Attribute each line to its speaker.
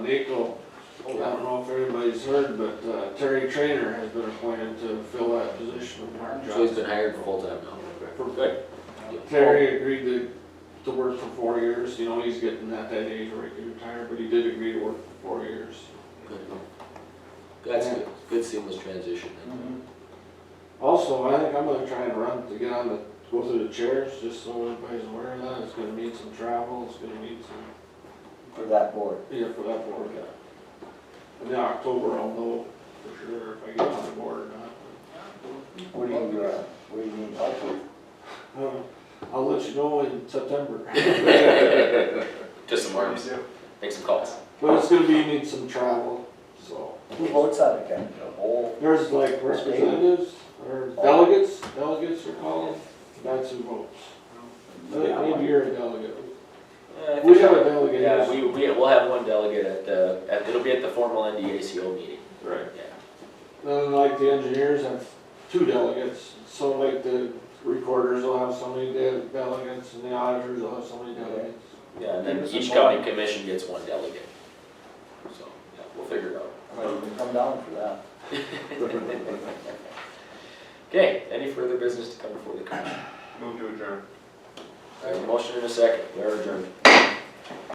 Speaker 1: Vehicle, I don't know if everybody's heard, but uh, Terry Trainer has been appointed to fill that position in Park
Speaker 2: So he's
Speaker 1: Johnson.
Speaker 2: been hired full-time now.
Speaker 1: Perfect. Terry agreed to, to work for four years, you know, he's getting at that age where he can retire, but he did agree to work for four years.
Speaker 2: Good. That's Oh, good, good seamless transition.
Speaker 1: Also, I think I'm gonna try and run to get on the, go through the chairs, just so everybody's aware of that, it's gonna need some travel, it's gonna need some
Speaker 3: for that board.
Speaker 1: Yeah, for that board, yeah. And then October, I'll know for sure if I get on the board or not.
Speaker 3: What do you, uh, what do you need help with?
Speaker 1: Uh, I'll let you know in September.
Speaker 2: Just some arms, make some calls.
Speaker 1: But it's gonna be, you need some travel, so.
Speaker 3: Who votes on it, Kevin? The whole,
Speaker 1: There's like representatives or delegates, delegates are called, that's who votes. I think Maybe you're a delegate.
Speaker 2: Uh,
Speaker 1: We have a delegate.
Speaker 2: Yeah, we, we, we'll have one delegate at the, at, it'll be at the formal NDACO meeting,
Speaker 1: Right.
Speaker 2: yeah.
Speaker 1: Then like the engineers have two delegates, so like the recorders will have so many de- delegates and the auditors will have so many delegates.
Speaker 2: Yeah, and then
Speaker 3: There's
Speaker 2: each
Speaker 3: some more.
Speaker 2: county commission gets one delegate. So, yeah, we'll figure it out.
Speaker 3: I might even come down for that.
Speaker 2: Okay, any further business to come before the commission?
Speaker 4: Move to adjourn.
Speaker 2: I have a motion in a second, we are adjourned.